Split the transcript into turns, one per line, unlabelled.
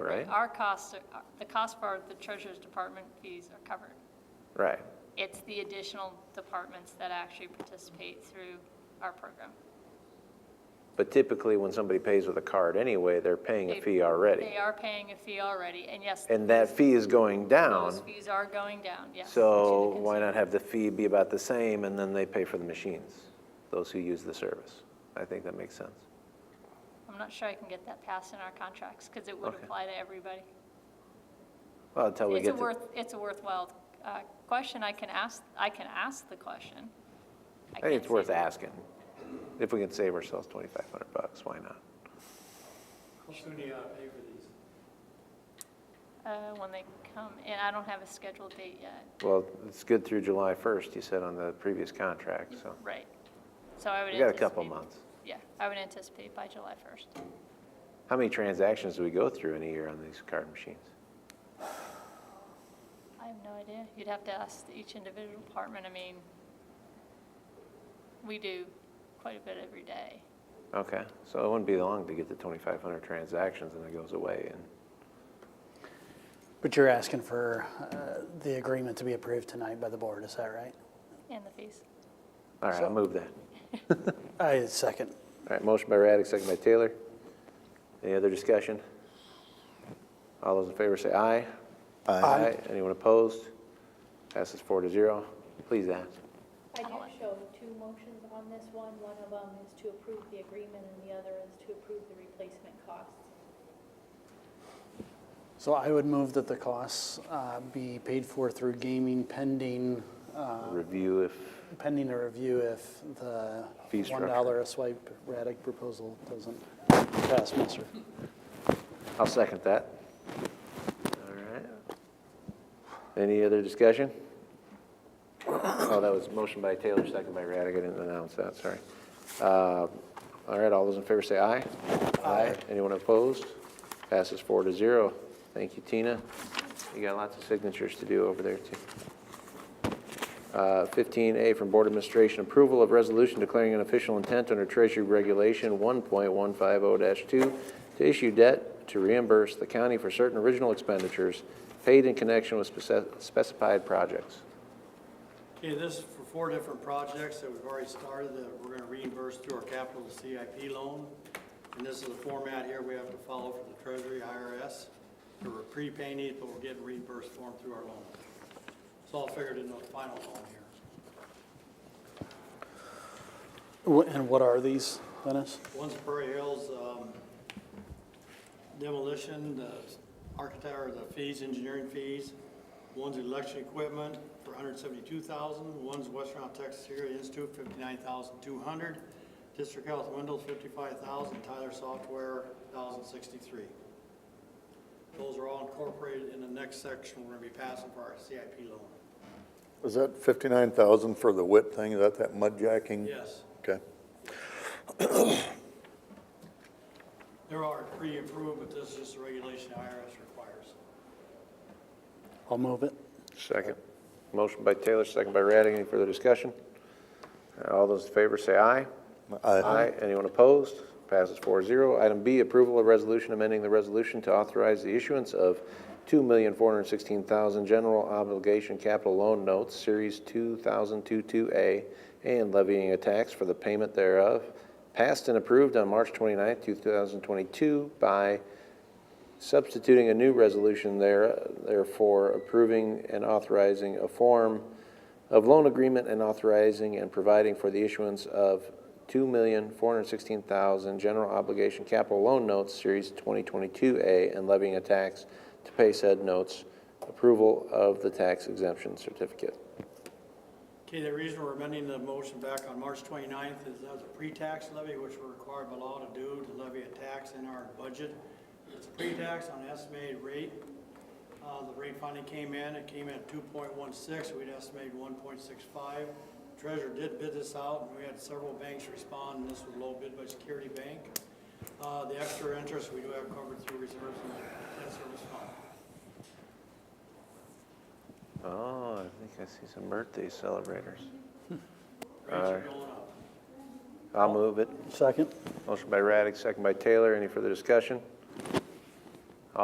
right?
Our costs, are- uh, the cost for the treasurer's department fees are covered.
Right.
It's the additional departments that actually participate through our program.
But typically, when somebody pays with a card anyway, they're paying a
They-
fee already.
They are paying a fee already, and yes.
And that fee is going
Those
down,
fees are going down, yes.
so
to the
why
consumer.
not have the fee be about the same, and then they pay for the machines, those who use the service? I think that makes sense.
I'm not sure I can get that passed in our contracts, because it would
Okay.
apply to everybody.
Well, until we
It's a
get to,
worth, it's a worthwhile uh, question, I can ask, I can ask the question.
I think it's
can't
worth
say-
asking. If we can save ourselves 2,500 bucks, why not?
How soon do you uh, pay for these?
Uh, When they come, and I don't have a scheduled date yet.
Well, it's good through July 1st, you said on the previous contract, so
Right. So I would
we got a couple
anticipate-
months.
Yeah, I would anticipate by July 1st.
How many transactions do we go through in a year on these card machines?
I have no idea. You'd have to ask each individual department. I mean, we do quite a bit every day.
Okay, so it wouldn't be long to get to 2,500 transactions and it goes away and.
But you're asking for uh, the agreement to be approved tonight by the board, is that right?
And the fees.
All right, I'll move that.
I second.
All right, motion by Raddick, second by Taylor. Any other discussion? All those in favor say aye. Aye. Anyone opposed? Passes four to zero. Please ask.
I do show two motions on this one. One of them is to approve the agreement and the other is to approve the replacement costs.
So I would move that the costs uh, be paid for through gaming pending, uh,
Review if,
pending a review if the
Fee structure.
$1 a swipe Raddick proposal doesn't pass muster.
I'll second that. All right. Any other discussion? Oh, that was motion by Taylor, second by Raddick. I didn't announce that, sorry. Uh, All right, all those in favor say aye. Aye. Anyone opposed? Passes four to zero. Thank you, Tina. You got lots of signatures to do over there, too. Uh, 15A from Board Administration, approval of resolution declaring an official intent under Treasury Regulation 1.150-2 to issue debt to reimburse the county for certain original expenditures paid in connection with spec- specified projects.
Okay, this is for four different projects that we've already started that we're gonna reimburse through our capital CIP loan. And this is the format here we have to follow for the Treasury IRS. So We're prepaying it, but we're getting reimbursed for them through our loan. It's all figured in the final loan here.
Wh- And what are these, Dennis?
One's Prairie Hills um, demolition, the architect, or the fees, engineering fees. One's election equipment for 172000 One's Western Ohio Texas Area Institute, 59200 District Health Windows, 55000 Tyler Software, 1063 Those are all incorporated in the next section we're going to be passing for our CIP loan.
Is that fifty-nine thousand for the whip thing? Is that that mud jacking?
Yes.
Okay.
There are pre-approved, but this is just a regulation IRS requires.
I'll move it.
Second. Motion by Taylor, second by Raddick. Any further discussion? All those in favor say aye. Aye. Anyone opposed? Passes 4-0. Item B, approval of resolution amending the resolution to authorize the issuance of two million four hundred sixteen thousand general obligation capital loan notes, series two thousand two-two A, and levying a tax for the payment thereof, passed and approved on March 29, thousand twenty-two by substituting a new resolution there, therefore approving and authorizing a form of loan agreement and authorizing and providing for the issuance of two million, four hundred sixteen thousand general obligation capital loan notes, series twenty twenty-two A, and levying a tax to pay said notes, approval of the tax exemption certificate.
Okay, the reason we're amending the motion back on March 29th is that was a pre-tax levy, which we're required by law to do, to levy a tax in our budget. It's pre-tax on estimated rate. Uh, The rate finally came in, it came in at 2.16, we'd estimated 1.65. Treasurer did bid this out, and we had several banks respond, and this was low bid by Security Bank. Uh, The extra interest, we do have covered through reserves and debt service fund.
Oh, I think I see some birthday celebrators.
Rates are going up.
I'll move it.
Second?
Motion by Raddick, second by Taylor. Any further discussion?